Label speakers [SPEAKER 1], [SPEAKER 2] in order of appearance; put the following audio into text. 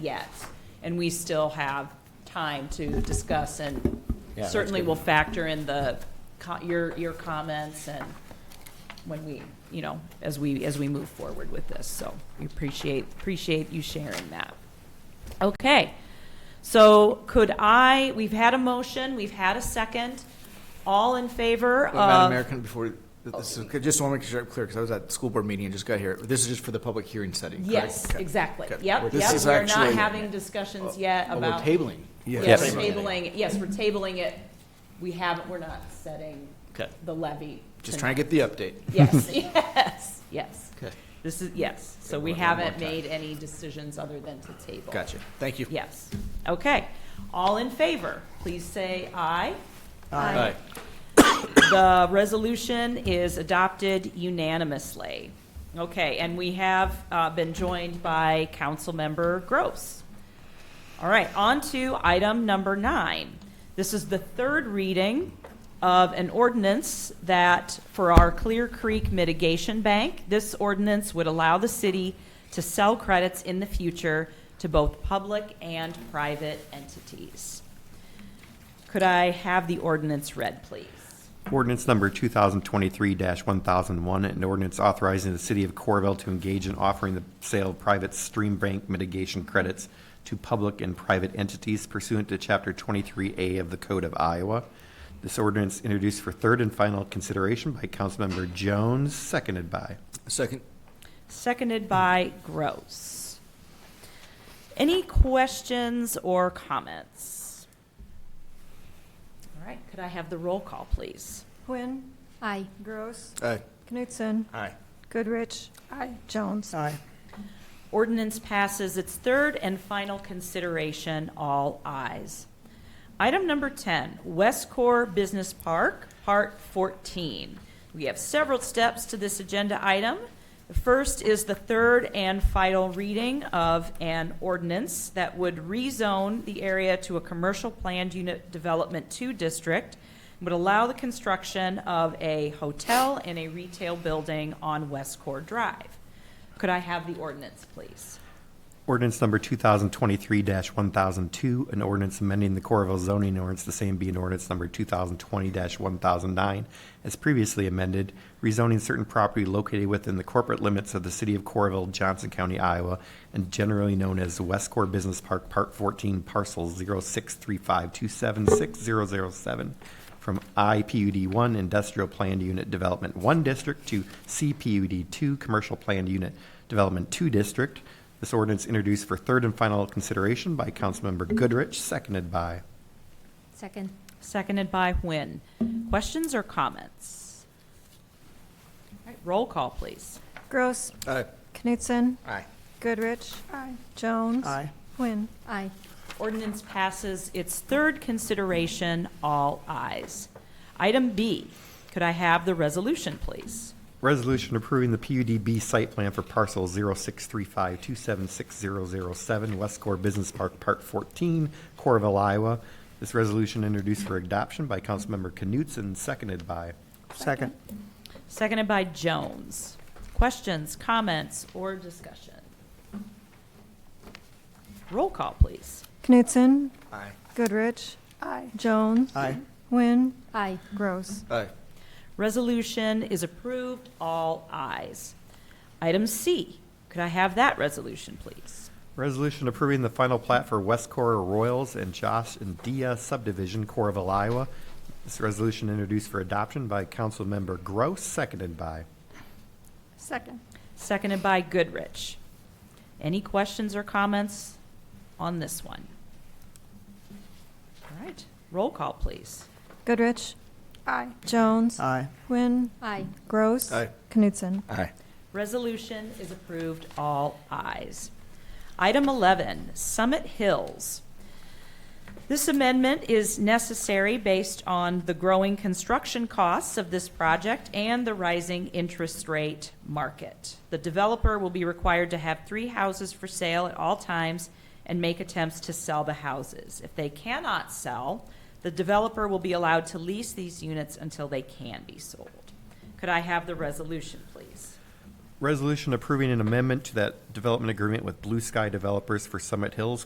[SPEAKER 1] yet, and we still have time to discuss, and
[SPEAKER 2] Yeah, that's
[SPEAKER 1] certainly
[SPEAKER 2] good.
[SPEAKER 1] we'll factor in the, co- your, your comments and when we, you know, as we, as we move forward with this, so we appreciate, appreciate you sharing that. Okay, so could I, we've had a motion, we've had a second, all in favor
[SPEAKER 2] Well, Madam
[SPEAKER 1] of?
[SPEAKER 2] Mayor, can, before, this is, just want to make sure I'm clear, because I was at the school board meeting and just got here. This is just for the public hearing setting, correct?
[SPEAKER 1] Yes,
[SPEAKER 2] Okay.
[SPEAKER 1] exactly,
[SPEAKER 2] Okay.
[SPEAKER 1] yep,
[SPEAKER 2] This
[SPEAKER 1] yep,
[SPEAKER 2] is
[SPEAKER 1] we're not
[SPEAKER 2] actually-
[SPEAKER 1] having discussions yet
[SPEAKER 2] Oh,
[SPEAKER 1] about.
[SPEAKER 2] We're tabling.
[SPEAKER 1] Yes, tabling, it. yes, we're tabling it. We haven't, we're not setting
[SPEAKER 2] Okay.
[SPEAKER 1] the levy.
[SPEAKER 2] Just trying to get the update.
[SPEAKER 1] Yes, yes, yes.
[SPEAKER 2] Okay.
[SPEAKER 1] This is, yes. So
[SPEAKER 2] Okay,
[SPEAKER 1] we
[SPEAKER 2] one- one more
[SPEAKER 1] haven't
[SPEAKER 2] time.
[SPEAKER 1] made any decisions other than to table.
[SPEAKER 2] Gotcha. Thank you.
[SPEAKER 1] Yes. Okay. All in favor, please say aye.
[SPEAKER 2] Aye.
[SPEAKER 1] The resolution is adopted unanimously. Okay, and we have uh, been joined by Councilmember Gross. All right, on to item number nine. This is the third reading of an ordinance that, for our Clear Creek Mitigation Bank, this ordinance would allow the city to sell credits in the future to both public and private entities. Could I have the ordinance read, please?
[SPEAKER 3] Ordinance number 2023-1001, an ordinance authorizing the city of Corville to engage in offering the sale of private stream bank mitigation credits to public and private entities pursuant to Chapter 23A of the Code of Iowa. This ordinance introduced for third and final consideration by Councilmember Jones, seconded by.
[SPEAKER 2] Second.
[SPEAKER 1] Seconded by Gross. Any questions or comments? All right, could I have the roll call, please?
[SPEAKER 4] Quinn.
[SPEAKER 5] Aye.
[SPEAKER 4] Gross.
[SPEAKER 2] Aye.
[SPEAKER 4] Knutson.
[SPEAKER 2] Aye.
[SPEAKER 4] Goodrich. Aye. Jones. Aye.
[SPEAKER 1] Ordinance passes its third and final consideration, all ayes. Item number 10, West Core Business Park, Part 14. We have several steps to this agenda item. The first is the third and final reading of an ordinance that would rezone the area to a commercial planned unit development 2 district, and would allow the construction of a hotel and a retail building on West Core Drive. Could I have the ordinance, please?
[SPEAKER 3] Ordinance number 2023-1002, an ordinance amending the Corville zoning ordinance, the same being ordinance number 2020-1009, as previously amended, rezoning certain property located within the corporate limits of the city of Corville, Johnson County, Iowa, and generally known as West Core Business Park, Part 14, Parcel 06352760007, from IPUD 1 Industrial Planned Unit Development 1 District to CPUD 2 Commercial Planned Unit Development 2 District, this ordinance introduced for third and final consideration by Councilmember Goodrich, seconded by.
[SPEAKER 5] Second.
[SPEAKER 1] Seconded by Nguyen. Questions or comments? All right, Roll call, please.
[SPEAKER 4] Gross.
[SPEAKER 2] Aye.
[SPEAKER 4] Knutson.
[SPEAKER 2] Aye.
[SPEAKER 4] Goodrich. Aye. Jones. Aye. Quinn.
[SPEAKER 5] Aye.
[SPEAKER 1] Ordinance passes its third consideration, all ayes. Item B, could I have the resolution, please?
[SPEAKER 3] Resolution approving the PUDB site plan for parcel 06352760007 West Core Business Park, Part 14, Corville, Iowa. This resolution introduced for adoption by Councilmember Knutson, seconded by.
[SPEAKER 6] Second.
[SPEAKER 1] Seconded by Jones. Questions, comments, or discussion? Roll call, please.
[SPEAKER 4] Knutson.
[SPEAKER 2] Aye.
[SPEAKER 4] Goodrich. Aye. Jones.
[SPEAKER 6] Aye.
[SPEAKER 4] Quinn.
[SPEAKER 5] Aye.
[SPEAKER 4] Gross.
[SPEAKER 2] Aye.
[SPEAKER 1] Resolution is approved, all ayes. Item C, could I have that resolution, please?
[SPEAKER 3] Resolution approving the final plat for West Core Royals and Josh and Dia subdivision, Corville, Iowa. This resolution introduced for adoption by Councilmember Gross, seconded by.
[SPEAKER 4] Second.
[SPEAKER 1] Seconded by Goodrich. Any questions or comments on this one? All right, roll call, please.
[SPEAKER 4] Goodrich. Aye. Jones.
[SPEAKER 6] Aye.
[SPEAKER 4] Quinn.
[SPEAKER 5] Aye.
[SPEAKER 4] Gross.
[SPEAKER 2] Aye.
[SPEAKER 4] Knutson.
[SPEAKER 2] Aye.
[SPEAKER 1] Resolution is approved, all ayes. Item 11, Summit Hills. This amendment is necessary based on the growing construction costs of this project and the rising interest rate market. The developer will be required to have three houses for sale at all times and make attempts to sell the houses. If they cannot sell, the developer will be allowed to lease these units until they can be sold. Could I have the resolution, please?
[SPEAKER 3] Resolution approving an amendment to that development agreement with Blue Sky Developers for Summit Hills